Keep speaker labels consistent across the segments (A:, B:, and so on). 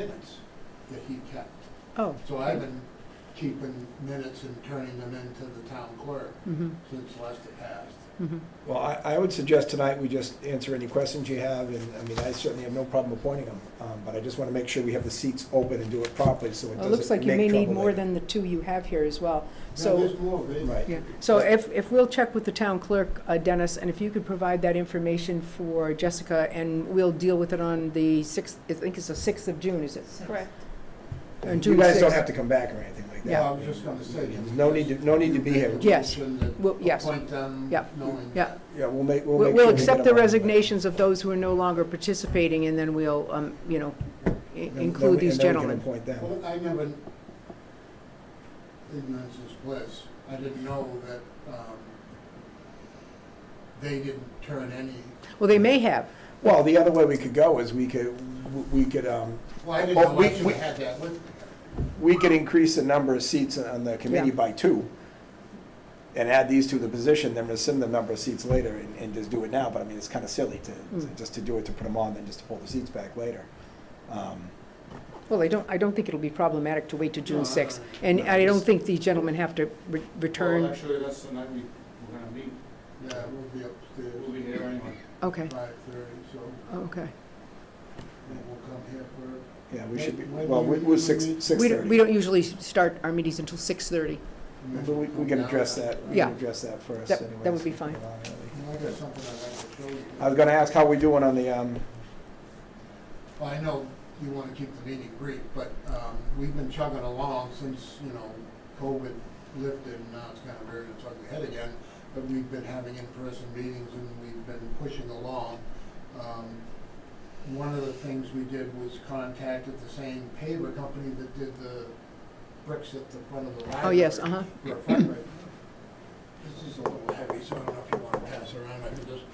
A: minutes that he kept.
B: Oh,
A: So I've been keeping minutes and turning them into the town clerk
B: mm-hmm,
A: since Lester passed.
B: mm-hmm.
C: Well, I, I would suggest tonight we just answer any questions you have, and, I mean, I certainly have no problem appointing them, um, but I just wanna make sure we have the seats open and do it properly, so it
B: It looks like
C: doesn't
B: you may
C: make
B: need
C: trouble
B: more
C: later.
B: than the two you have here as well.
A: Now,
B: So,
A: there's more, there's-
C: Right.
B: yeah, so if, if we'll check with the town clerk, uh, Dennis, and if you could provide that information for Jessica, and we'll deal with it on the sixth, I think it's the sixth of June, is it?
D: Correct.
B: And
C: You
B: June
C: guys don't
B: sixth.
C: have to come back or anything like that.
A: Well, I was just gonna say.
C: There's No need to, no need to be here.
B: Yeah. Yes.
A: You made a motion to
B: Well, yes.
A: Appoint them,
B: Yeah.
A: knowing.
B: Yeah.
C: Yeah, we'll make, we'll
B: We'll
C: make sure.
B: we'll
C: we
B: accept
C: get
B: the
C: them on, but-
B: resignations of those who are no longer participating, and then we'll, um, you know, i-
C: and then-
B: include these
C: And
B: gentlemen.
C: then we can appoint them.
A: Well, I never, ignorance is bliss, I didn't know that, um, they didn't turn any,
B: Well, they may have,
C: Well, the other way we could go is we could, we could, um,
A: well, I didn't
C: Well,
A: know
C: we-
A: I should
C: we-
A: have had that with me.
C: we could increase the number of seats on the committee
B: Yeah.
C: by two and add these to the position, then rescind the number of seats later and, and just do it now, but I mean, it's kind of silly to, to-
B: Mm.
C: just to do it, to put them on, then just to pull the seats back later. Um,
B: well, I don't, I don't think it'll be problematic to wait to
A: No,
B: June
A: no,
B: sixth.
A: no.
B: And
C: No,
B: I don't
C: just-
B: think these gentlemen have to re-
E: Well,
B: return,
E: actually, that's the night we, we're gonna meet,
A: Yeah, we'll be
E: we'll be
A: upstairs,
E: here anyway.
B: okay,
A: five thirty, so
B: Oh, okay.
A: we'll come here for
C: Yeah, we should be,
A: Wait, wait,
C: well, we-
A: wait,
C: we're
A: wait,
C: six,
A: wait.
C: six
B: We don't, we
C: thirty.
B: don't usually start our meetings until 6:30.
C: But we, we can address that, we
B: Yeah.
C: can address that first
B: That-
C: anyways.
B: that would be fine.
A: I got something I'd like to show you.
C: I was gonna ask how we doing on the, um,
A: Well, I know you want to keep the meeting brief, but um, we've been chugging along since, you know, COVID lifted, and now it's kind of rearing its ugly head again. But we've been having in-person meetings, and we've been pushing along. Um, One of the things we did was contacted the same paver company that did the bricks at the front of the library.
B: Oh, yes, uh-huh.
A: for a fundraiser. This is a little heavy, so I don't know if you want to pass around, I can just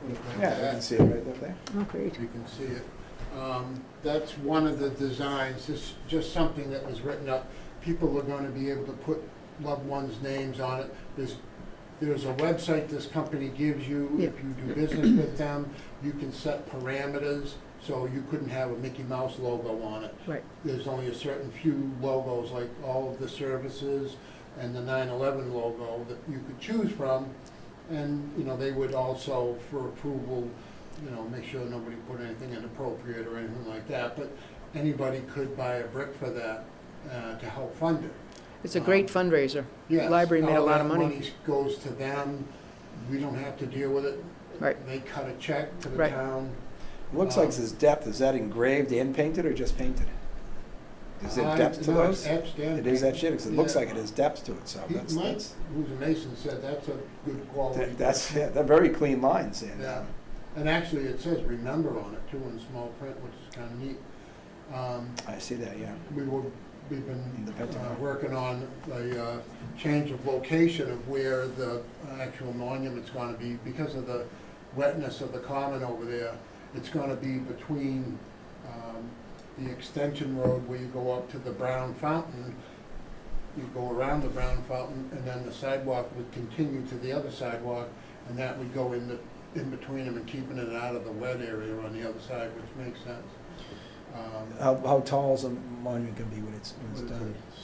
A: put it like
C: yeah, you
A: that
C: can see it right up there.
B: Oh, great.
A: you can see it. Um, That's one of the designs, just, just something that was written up. People are gonna be able to put loved ones' names on it. There's, there's a website this company gives you, if you do business with them, you can set parameters, so you couldn't have a Mickey Mouse logo on it.
B: Right.
A: There's only a certain few logos, like all of the services and the 9/11 logo that you could choose from. And, you know, they would also, for approval, you know, make sure nobody put anything inappropriate or anything like that, but anybody could buy a brick for that, uh, to help fund it.
B: It's a great fundraiser.
A: Yes,
B: Library made a
A: all
B: lot
A: that
B: of money.
A: Goes to them, we don't have to deal with it.
B: Right.
A: They cut a check to the
B: Right.
A: town.
C: Looks
A: Uh,
C: like this depth, is that engraved and painted or just painted? Is there
A: I-
C: depth to
A: no, it's
C: those?
A: etched in.
C: It is that shit, 'cause it looks
A: Yeah.
C: like it has depth to it, so
A: He-
C: that's,
A: Mike,
C: that's,
A: who's a mason, said that's a good quality.
C: that- that's, yeah, they're very clean lines, and,
A: Yeah.
C: um,
A: And actually, it says remember on it too in small print, which is kind of neat. Um,
C: I see that, yeah.
A: we were, we've
C: In
A: been
C: the
A: uh,
C: Pentagon.
A: working on the uh, change of location of where the actual monument's gonna be. Because of the wetness of the common over there, it's gonna be between um, the extension road where you go up to the Brown Fountain. You go around the Brown Fountain, and then the sidewalk would continue to the other sidewalk, and that would go in the, in between them and keeping it out of the wet area on the other side, which makes sense. Um,
C: How, how tall is a monument gonna be when it's, when Uh, it's
A: what is
C: done?
A: it,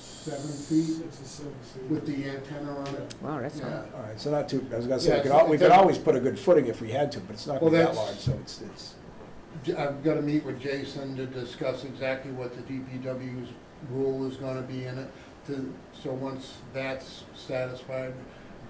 A: Seven feet
E: Six or seven.
A: with the antenna on it.
B: Wow, that's
A: Yeah.
B: not,
C: All right, so not too, I was gonna say,
A: Yeah,
C: we could,
A: it's-
C: al- we
A: it
C: could
A: doesn't-
C: always put a good footing if we had to, but it's not
A: Well,
C: gonna be that
A: that's-
C: large, so it's, it's,
A: J- I've got to meet with Jason to discuss exactly what the DPW's rule is gonna be in it. To, so once that's satisfied,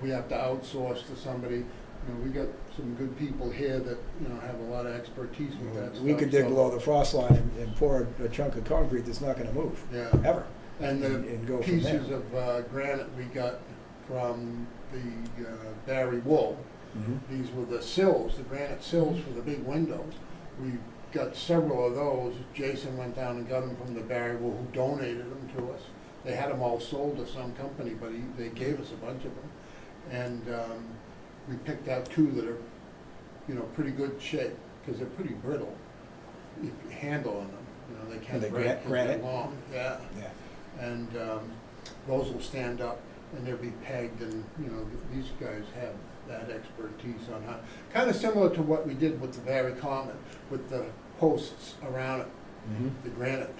A: we have to outsource to somebody. You know, we got some good people here that, you know, have a lot of expertise with that stuff.
C: we could dig
A: so-
C: below the frost line and, and pour a chunk of concrete that's not gonna move,
A: Yeah,
C: ever.
A: and the
C: and go from there.
A: pieces of uh, granite we got from the uh, Barry Wool.
C: Mhm.
A: These were the sills, the granite sills for the big windows. We got several of those. Jason went down and got them from the Barry Wool, who donated them to us. They had them all sold to some company, but he, they gave us a bunch of them. And, um, we picked out two that are, you know, pretty good shape, because they're pretty brittle. You can handle on them, you know, they
C: Are
A: can't
C: they
A: break
C: gran-
A: 'cause they're
C: granite?
A: long, yeah.
C: Yeah,
A: And, um, those will stand up and they'll be pegged and, you know, th- these guys have that expertise on how, kind of similar to what we did with the Barry Common, with the posts around it.
C: Mhm.
A: the granite